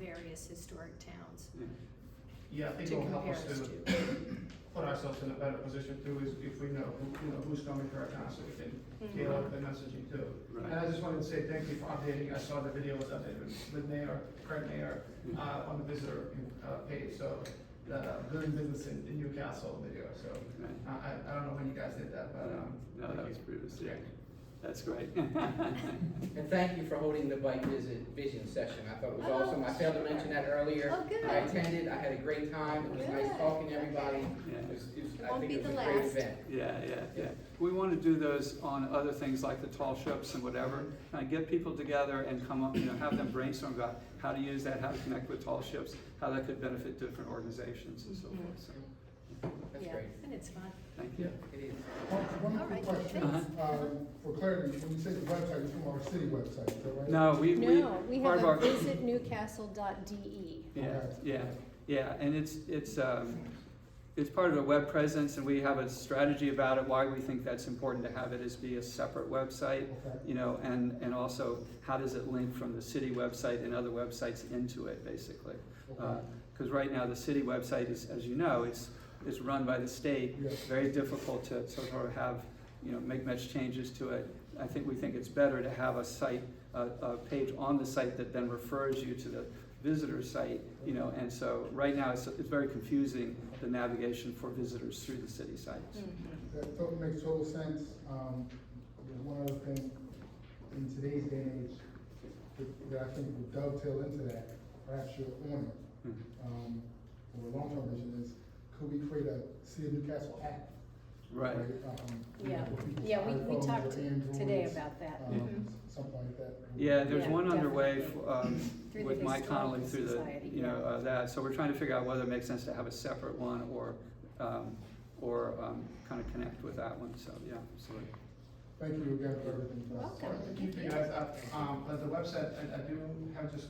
various historic towns Yeah, I to think it'll help compare us us to to. put ourselves in a better position too, is if we know who, you know, who's coming to our council, we can Mm-hmm. tailor up the messaging too. Right. And I just wanted to say thank you for updating, I saw the video was updated with Mayor, current Mayor, uh, on the visitor, uh, page, so, uh, doing business in, in Newcastle video, so, Right. I, I, I don't know when you guys did that, but, um. No, that thank was you. previously. Yeah. That's great. And thank you for holding the bike visit vision session. I thought it was Oh, awesome. I failed to sure. mention that earlier. Oh, good. I attended, I had a great time. It was nice Good. talking to everybody. Yeah. It was, it was, It I won't think be it was a the great last. event. Yeah, yeah, yeah. We want to do those on other things like the tall ships and whatever. Kind of get people together and come up, you know, have them brainstorm about how to use that, how to connect with tall ships, how that could benefit different organizations and so forth, so, That's Yeah, great. and it's fun. thank Yeah, you. it is. One one All right, quick question, thanks. Uh-huh. um, for clarity, when you say the website, it's from our city website, is that right? No, we, we, No, we part have of a our, E. visitnewcastle.de. yeah, Okay. yeah, yeah, and it's, it's, um, it's part of a web presence and we have a strategy about it, why we think that's important to have it is be a separate website. Okay, you know, and, and also how does it link from the city website and other websites into it, basically? Uh, okay, Because right now, the city website is, as you know, it's, is run by the state, Yes. very difficult to sort of have, you know, make much changes to it. I think, we think it's better to have a site, a, a page on the site that then refers you to the visitor site, you know, and so, right now, it's, it's very confusing, the navigation for visitors through the city sites. Mm. that totally makes total sense, um, there's one other thing, in today's day and age, that- that I think would dovetail into that, perhaps your owner, Mhm. um, or long-term vision is, could we create a City of Newcastle app? Right, um, Yeah, for people's yeah, we, iPhones we or talked today Androids, about that. Mm-hmm. Um, something like that. Yeah, there's Yeah, one underway definitely. f- um, Through the with Mike Connolly Historical through the, Society, you know, yeah. uh, that, so we're trying to figure out whether it makes sense to have a separate one or, um, or kind of connect with that one, so, yeah, so. Thank you again for everything. guys. Welcome. Sorry, Can you figure guys out, um, but the website, I, I do have just,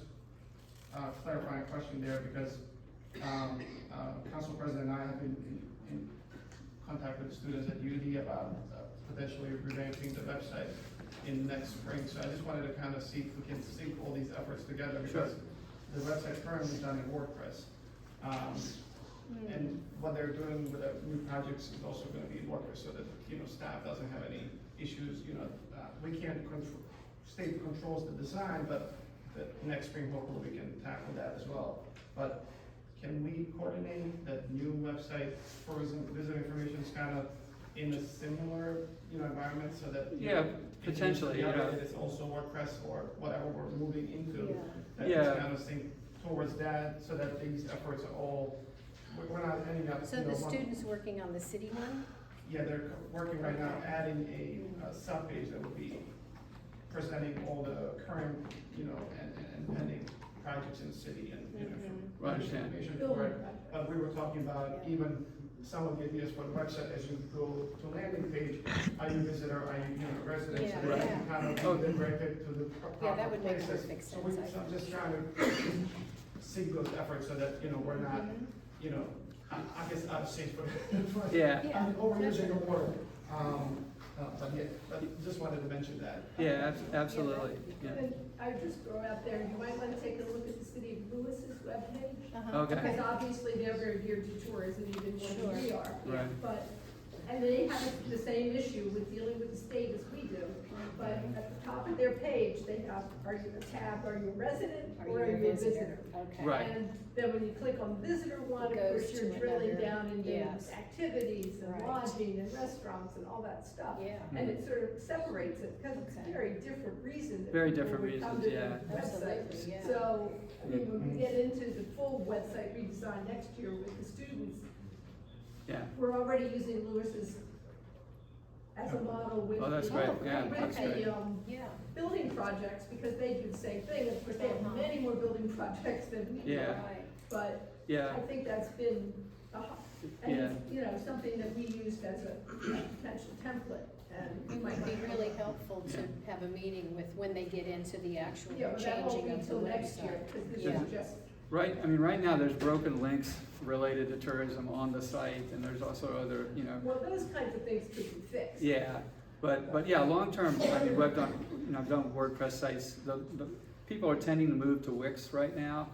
uh, clarifying question there, because, um, uh, council president and I have been in, in contact with students at UD about uh, potentially revamping the website in next spring, so I just wanted to kind of see if we can sync all these efforts together, because the website currently is done in WordPress. Um, Mm-hmm. and what they're doing with the new projects is also gonna be in WordPress, so that, you know, staff doesn't have any issues, you know, uh, we can't control, state controls the design, but the next spring hopefully we can tackle that as well. But can we coordinate that new website for visit- visitor information is kind of in a similar, you know, environment so that? you Yeah, know, if you- potentially, yeah, yeah. that It's also WordPress or whatever we're moving into. Yeah. That Yeah. it's kind of synced towards that so that these efforts are all, we're- we're not ending up, So you know, the one- students working on the city one? Yeah, they're co- working right now, adding a uh, subpage that will be presenting all the current, you know, and, and- and pending projects in the city and, you know, for- Mm-hmm. Right, understand. information for it. But we were talking about even some of the ideas for the website, as you go to landing page, are you visitor, are you, you know, resident? So Yeah, that you yeah. Kind Oh. of direct it to the pro- Yeah, that proper would make places. perfect So we- sense, I so I'm just trying to sync those efforts so that, you know, we're not, Mm-hmm. you know, I, I guess I'm safe for, for Yeah, Yeah. I'm overusing the word, um, uh, but yeah, but just wanted to mention that. yeah, abs- absolutely, yeah. And I would just throw out there, you might want to take a look at the city of Lewis's webpage, Uh-huh. Okay. because obviously they're very geared to tourism even more than we are. Right. But, and they have the same issue with dealing with the state as we do, but at the top of their page, they have, are you a tab, are you a resident, or are you a visitor? Okay. Right. And then when you click on the visitor one, of Goes course, you're to drilling another- down into yes. activities and Right. lodging and restaurants and all that stuff. Yeah. And Hmm. it sort of separates it, because it's Okay. a very different reason. that Very people different would come reasons, to yeah. Hmm. the website. Absolutely, yeah. So, I mean, when Mm. we get into the full website redesign next year with the students, Yeah, we're already using Lewis's as a model with. Oh, that's the- great. Oh, Yeah, great, With that's okay. great. the, um, Yeah, building projects, because they do the same thing, of course, they Uh-huh. have many more building projects than we do. Yeah. right. But yeah, I think that's been, a ho- and Yeah. it's, you know, something that we used as a potential template and. It might be really helpful Yeah. to have a meeting with when they get into the actual Yeah, but that won't changing be of the till next website. year, because this Yeah. is just, right, I mean, right now, there's broken links related to tourism on the site, and there's also other, you know, well, those kinds of things could be fixed. Yeah, but, but yeah, long-term, I mean, we've done, you know, I've done WordPress sites, the, the, people are tending to move to Wix right now.